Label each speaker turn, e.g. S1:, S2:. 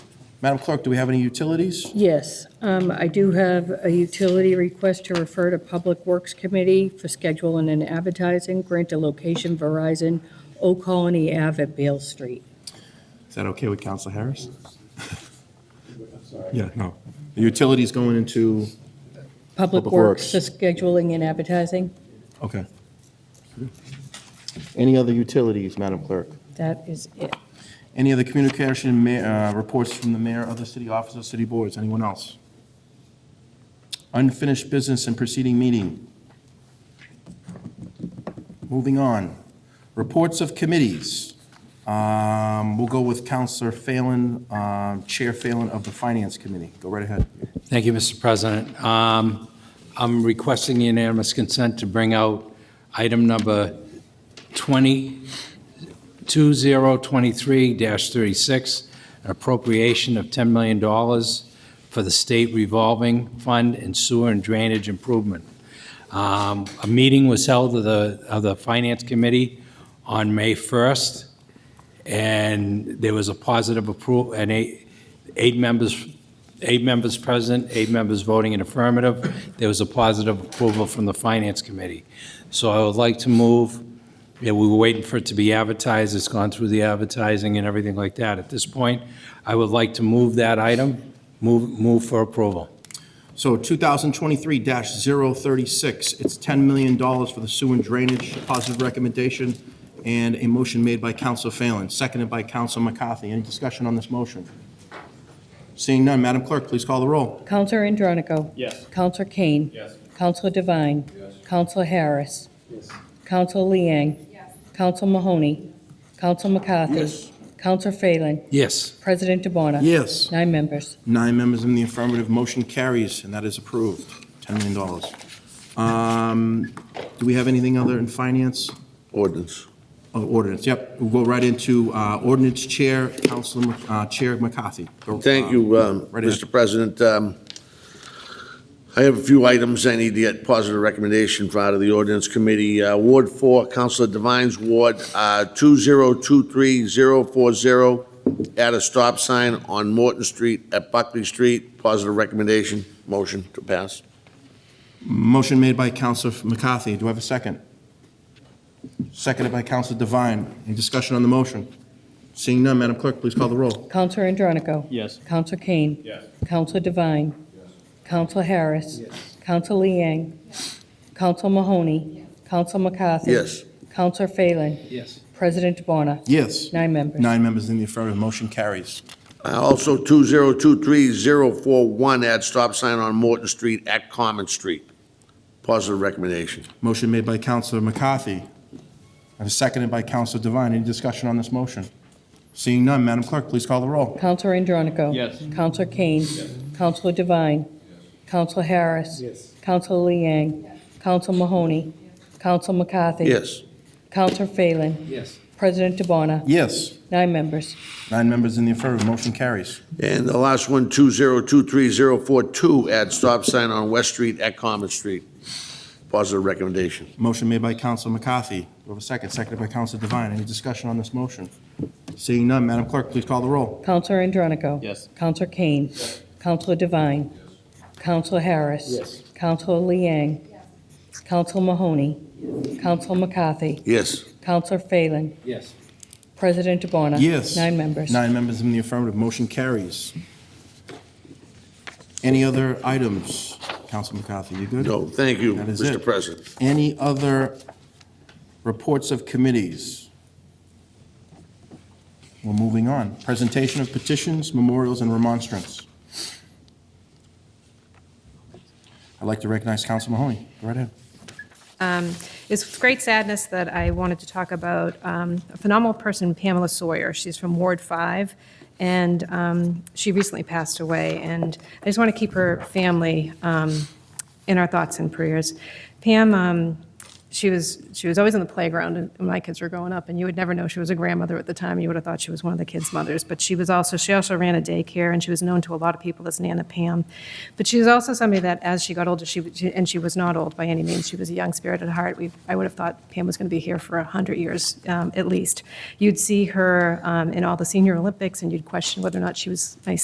S1: Madam Clerk, do we have any utilities?
S2: Yes, um, I do have a utility request to refer to Public Works Committee for scheduling and advertising, grant a location Verizon, Old Colony Ave at Beale Street.
S1: Is that okay with Council Harris? Yeah, no. The utilities going into,
S2: Public
S1: Public
S2: Works
S1: Works.
S2: for scheduling and advertising,
S1: okay. Any other utilities, Madam Clerk?
S2: that is it.
S1: Any other communication, ma- uh, reports from the mayor, other city officers, city boards, anyone else? Unfinished business and preceding meeting. Moving on, reports of committees. Um, We'll go with Counselor Phelan, um, Chair Phelan of the Finance Committee. Go right ahead.
S3: Thank you, Mr. President. Um, I'm requesting unanimous consent to bring out item number 20, 2023-36, an appropriation of $10 million for the state revolving fund and sewer and drainage improvement. Um, A meeting was held of the, of the Finance Committee on May 1st, and there was a positive approval, and eight, eight members, eight members present, eight members voting in affirmative. There was a positive approval from the Finance Committee. So I would like to move, yeah, we were waiting for it to be advertised, it's gone through the advertising and everything like that. At this point, I would like to move that item, move, move for approval.
S1: So 2023-036, it's $10 million for the sewer and drainage, positive recommendation, and a motion made by Counsel Phelan, seconded by Counsel McCarthy. Any discussion on this motion? Seeing none, Madam Clerk, please call the roll.
S2: Counselor Andronico.
S4: Yes.
S2: Counselor Kane.
S4: Yes.
S2: Counselor Devine. Yes. Counselor Harris. Yes. Counselor Liang. Yes. Counselor Mahoney. Counselor McCarthy. Yes. Counselor Phelan.
S3: Yes,
S2: President DeBona.
S1: Yes.
S2: Nine members.
S1: Nine members in the affirmative, motion carries, and that is approved, $10 million. Um, Do we have anything other in finance?
S5: ordinance.
S1: Oh, Ordinance, yep. We'll go right into uh, ordinance chair, Counselor, uh, Chair McCarthy. Go,
S5: Thank
S1: uh,
S5: you, um,
S1: right ahead.
S5: Mr. President. Um, I have a few items I need to get positive recommendation for out of the ordinance committee. Uh, Ward 4, Counselor Devine's ward, uh, 2023040, add a stop sign on Morton Street at Buckley Street. Positive recommendation, motion to pass.
S1: Motion made by Counselor McCarthy. Do I have a second? Seconded by Counselor Devine. Any discussion on the motion? Seeing none, Madam Clerk, please call the roll.
S2: Counselor Andronico.
S4: Yes.
S2: Counselor Kane.
S4: Yes.
S2: Counselor Devine. Counselor Harris. Counselor Liang. Counselor Mahoney. Counselor McCarthy.
S5: Yes.
S2: Counselor Phelan. Yes. President DeBona.
S1: Yes.
S2: Nine members.
S1: Nine members in the affirmative. Motion carries.
S5: Uh, Also, 2023041, add stop sign on Morton Street at Common Street. Positive recommendation.
S1: Motion made by Counselor McCarthy. And seconded by Counselor Devine. Any discussion on this motion? Seeing none, Madam Clerk, please call the roll.
S2: Counselor Andronico.
S4: Yes.
S2: Counselor Kane. Counselor Devine. Counselor Harris. Counselor Liang. Counselor Mahoney. Counselor McCarthy.
S5: Yes.
S2: Counselor Phelan.
S3: Yes.
S2: President DeBona.
S1: Yes.
S2: Nine members.
S1: Nine members in the affirmative. Motion carries.
S5: And the last one, 2023042, add stop sign on West Street at Common Street. Positive recommendation.
S1: Motion made by Counselor McCarthy. Do I have a second? Seconded by Counselor Devine. Any discussion on this motion? Seeing none, Madam Clerk, please call the roll.
S2: Counselor Andronico.
S4: Yes.
S2: Counselor Kane. Counselor Devine. Counselor Harris.
S4: Yes.
S2: Counselor Liang. Counselor Mahoney. Counselor McCarthy.
S5: Yes.
S2: Counselor Phelan.
S3: Yes.
S2: President DeBona.
S1: Yes.
S2: Nine members.
S1: Nine members in the affirmative, motion carries. Any other items? Council McCarthy, you good?
S5: No, thank you,
S1: That is
S5: Mr.
S1: it.
S5: President.
S1: Any other reports of committees? We're moving on. Presentation of petitions, memorials, and remonstrance. I'd like to recognize Council Mahoney. Go right ahead.
S6: Um, It's with great sadness that I wanted to talk about um, a phenomenal person, Pamela Sawyer. She's from Ward 5, and um, she recently passed away. And I just want to keep her family um, in our thoughts and prayers. Pam, um, she was, she was always on the playground when my kids were growing up, and you would never know she was a grandmother at the time. You would have thought she was one of the kids' mothers. But she was also, she also ran a daycare, and she was known to a lot of people as Nana Pam. But she was also somebody that, as she got older, she, would- she- and she was not old by any means, she was a young spirit at heart. We, I would have thought Pam was going to be here for 100 years um, at least. You'd see her um, in all the senior Olympics, and you'd question whether or not she was nice